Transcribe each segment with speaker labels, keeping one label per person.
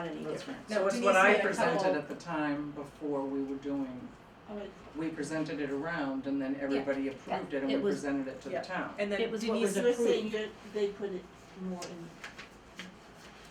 Speaker 1: those rooms.
Speaker 2: That was
Speaker 3: Denise
Speaker 2: what I
Speaker 3: made a
Speaker 2: presented
Speaker 3: couple-
Speaker 2: at the time before we were doing,
Speaker 3: I would-
Speaker 2: we presented it around and then everybody approved it and we
Speaker 4: It was-
Speaker 2: presented it to the
Speaker 3: yeah.
Speaker 2: town.
Speaker 3: And then
Speaker 4: It was what
Speaker 3: Denise
Speaker 4: was
Speaker 3: was saying
Speaker 4: approved.
Speaker 3: that they put it more in,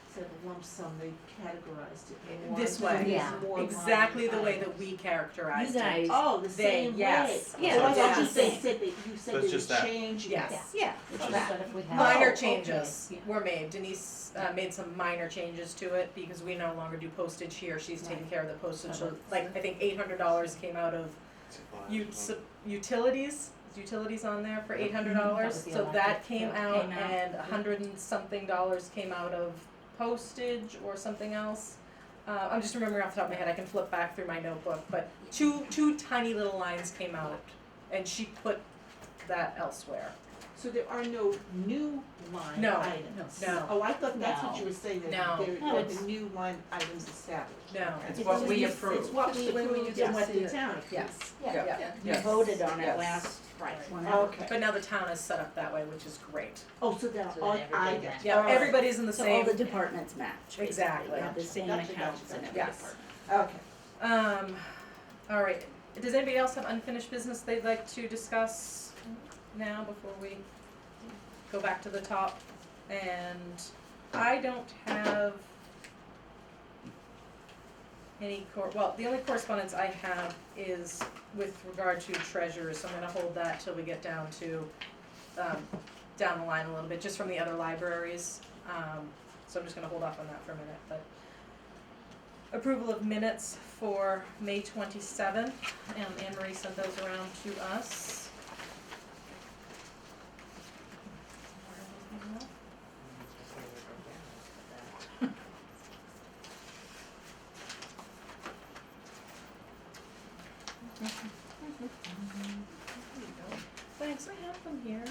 Speaker 3: instead of lump sum, they categorized it more.
Speaker 1: This
Speaker 3: so there's
Speaker 4: way. Yeah.
Speaker 3: more line
Speaker 1: Exactly the way
Speaker 3: items.
Speaker 1: that we characterized
Speaker 4: You
Speaker 1: it.
Speaker 4: guys-
Speaker 3: Oh, the
Speaker 1: They-
Speaker 3: same way.
Speaker 1: yes.
Speaker 4: Yeah,
Speaker 3: Oh, I
Speaker 4: that's
Speaker 3: thought
Speaker 4: what
Speaker 3: you
Speaker 4: I'm
Speaker 3: said-
Speaker 4: saying.
Speaker 3: said that, you said
Speaker 5: So it's
Speaker 3: that
Speaker 5: just
Speaker 3: you
Speaker 5: that.
Speaker 3: changed. it.
Speaker 1: Yes.
Speaker 4: Yeah,
Speaker 5: Which
Speaker 4: so
Speaker 5: is-
Speaker 4: that if we have.
Speaker 1: Minor
Speaker 3: okay.
Speaker 1: changes
Speaker 4: Yeah.
Speaker 1: were made. Denise uh, made some minor changes to it because we no longer do postage here. She's taking
Speaker 4: Right.
Speaker 1: care of the postage. So,
Speaker 4: Right.
Speaker 1: like, I think eight hundred dollars came out of u-
Speaker 5: Supplies.
Speaker 1: utilities. Is Utilities on there for
Speaker 5: Yep.
Speaker 1: eight hundred
Speaker 4: Mm-hmm. That
Speaker 1: dollars.
Speaker 4: was the
Speaker 1: so that
Speaker 4: electric,
Speaker 1: came
Speaker 4: yeah,
Speaker 1: out,
Speaker 4: came out.
Speaker 1: and a
Speaker 4: Yep.
Speaker 1: hundred and something dollars came out of postage or something else. Uh, I'm just remembering off the top of my head. I can flip back through my notebook, but two two tiny little lines came out, and she put that elsewhere.
Speaker 3: So there are no new line
Speaker 1: No,
Speaker 3: items?
Speaker 1: no.
Speaker 3: Oh, I thought that's what
Speaker 4: No.
Speaker 3: you were saying, that
Speaker 1: No.
Speaker 3: there,
Speaker 4: No,
Speaker 3: that
Speaker 4: it's-
Speaker 3: the new line items established.
Speaker 1: No.
Speaker 2: It's what we
Speaker 3: just-
Speaker 2: approved.
Speaker 3: It's what
Speaker 4: Just
Speaker 3: we
Speaker 4: approved,
Speaker 3: approved
Speaker 4: yes.
Speaker 3: and what the town approves.
Speaker 1: Yes.
Speaker 4: Yeah,
Speaker 1: Yeah.
Speaker 4: you
Speaker 2: Yes.
Speaker 4: voted on it
Speaker 2: Yes.
Speaker 4: last, right,
Speaker 1: Right.
Speaker 4: whenever.
Speaker 3: Okay.
Speaker 1: But now the town is set up that way, which is great.
Speaker 3: Oh, so that
Speaker 4: So
Speaker 3: all
Speaker 4: then everybody
Speaker 3: items.
Speaker 4: matches.
Speaker 1: Yeah,
Speaker 3: Alright.
Speaker 1: everybody's in the
Speaker 4: So all
Speaker 1: same.
Speaker 4: the departments match, basically.
Speaker 1: Exactly.
Speaker 4: You have the same
Speaker 3: Gotcha, gotcha,
Speaker 4: accounts in
Speaker 3: gotcha.
Speaker 4: every
Speaker 1: Yes.
Speaker 4: department.
Speaker 3: Okay.
Speaker 1: Um, all right, does anybody else have unfinished business they'd like to discuss now before we go back to the top? And I don't have any cor, well, the only correspondence I have is with regard to treasurers, so I'm gonna hold that till we get down to, um, down the line a little bit, just from the other libraries. Um, so I'm just gonna hold off on that for a minute, but approval of minutes for May twenty-seventh, and Anne Marie sent those around to us. Thanks, I have them here.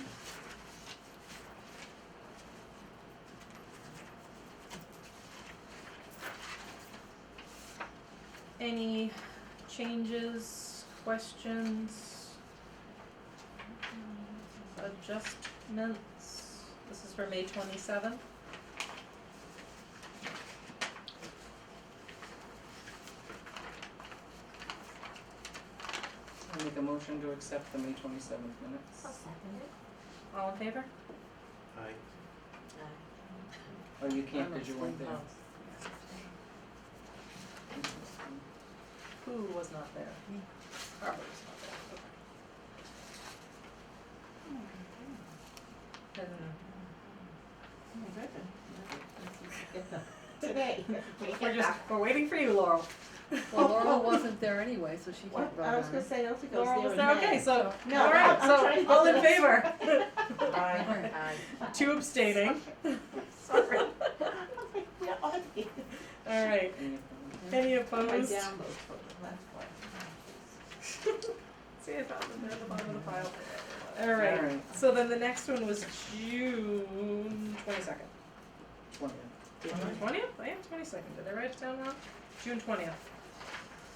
Speaker 1: Any changes, questions? Adjustments, this is for May twenty-seventh.
Speaker 2: I'll make a motion to accept the May twenty-seventh minutes.
Speaker 1: All in favor?
Speaker 5: Aye.
Speaker 2: Oh, you can't, cause you weren't there.
Speaker 1: Who was not there? Barbara was not there, okay. And
Speaker 3: Today.
Speaker 1: we're just, we're waiting for you, Laurel.
Speaker 6: Well, Laurel wasn't there anyway, so she
Speaker 3: What?
Speaker 6: can't vote
Speaker 3: I was
Speaker 6: on
Speaker 3: gonna
Speaker 6: it.
Speaker 3: say, I don't think I was there
Speaker 1: Laurel was
Speaker 3: in
Speaker 1: there,
Speaker 3: May.
Speaker 1: okay, so,
Speaker 3: No,
Speaker 1: all right,
Speaker 3: I'm- I'm trying
Speaker 1: so,
Speaker 3: to
Speaker 1: all
Speaker 3: get
Speaker 1: in
Speaker 3: the-
Speaker 1: favor?
Speaker 2: Aye.
Speaker 1: Two abstaining,
Speaker 3: Sorry. I'm like, where are they?
Speaker 1: all right,
Speaker 2: Any of them?
Speaker 1: any
Speaker 3: My
Speaker 1: opposed?
Speaker 3: download folder, that's why.
Speaker 1: See, I found them there at the bottom of the pile. All right,
Speaker 2: Alright.
Speaker 1: so then the next one was June twenty-second.
Speaker 2: Twenty.
Speaker 1: Twentieth? I am twenty-second, did I write it down wrong? June twentieth.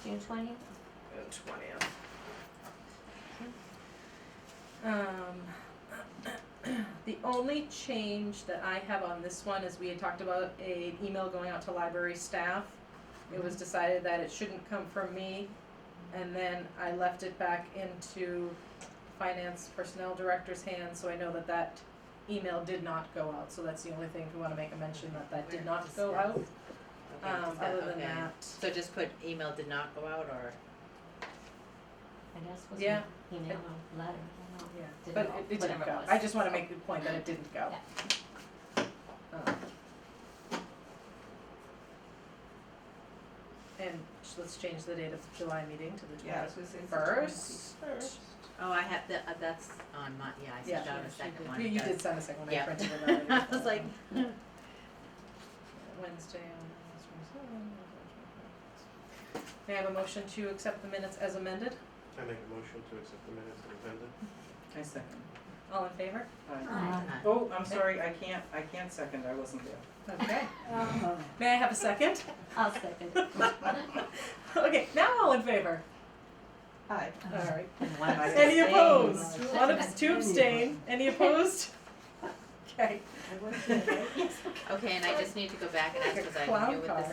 Speaker 4: June twentieth?
Speaker 1: twentieth. Um, the only change that I have on this one is we had talked about an email going out to library staff. It was decided that it shouldn't come from me, and then I left it back into finance personnel director's hands, so I know that that email did not go out, so that's the only thing, if we wanna make a mention that that did not go out, um, other than that.
Speaker 6: So just put email did not go out or?
Speaker 4: I guess was
Speaker 1: Yeah.
Speaker 4: an email or letter, I don't know.
Speaker 1: Yeah,
Speaker 4: Didn't
Speaker 1: but
Speaker 4: go,
Speaker 1: it, it didn't
Speaker 4: whatever it
Speaker 1: go.
Speaker 4: was.
Speaker 1: I just wanna make the point that it didn't go. Um, And sh- let's change the date of the July meeting to the
Speaker 3: Yeah, I was
Speaker 1: twentieth.
Speaker 3: gonna say.
Speaker 1: First.
Speaker 3: First.
Speaker 6: Oh, I have, the- uh, that's on my, yeah, I
Speaker 1: Yeah,
Speaker 6: sent out
Speaker 3: yeah,
Speaker 6: a
Speaker 3: she
Speaker 6: second
Speaker 3: did.
Speaker 6: one.
Speaker 1: You, you
Speaker 6: it
Speaker 1: did
Speaker 6: does.
Speaker 1: send a second one, I
Speaker 6: Yeah.
Speaker 1: printed it already.
Speaker 6: I was like,
Speaker 1: Wednesday, on- May I have a motion to accept the minutes as amended?
Speaker 5: I make a motion to accept the minutes as amended.
Speaker 2: I second.
Speaker 1: All in favor?
Speaker 2: Aye.
Speaker 4: Aye.
Speaker 6: Aye.
Speaker 1: Uh-huh.
Speaker 2: Oh, I'm sorry, I can't, I can't second, I wasn't there.
Speaker 1: Okay.
Speaker 4: Oh,
Speaker 1: May I have a second?
Speaker 4: I'll second.
Speaker 1: Okay, now all in favor?
Speaker 3: Hi.
Speaker 1: All right.
Speaker 2: I
Speaker 1: Any
Speaker 2: abstained.
Speaker 1: opposed? One abs- two abstain. Any opposed? Okay.
Speaker 3: I was there, right?
Speaker 6: Okay, and I just need to go back and ask,
Speaker 1: Like a
Speaker 6: cause I
Speaker 1: clown
Speaker 6: knew what
Speaker 1: car.
Speaker 6: this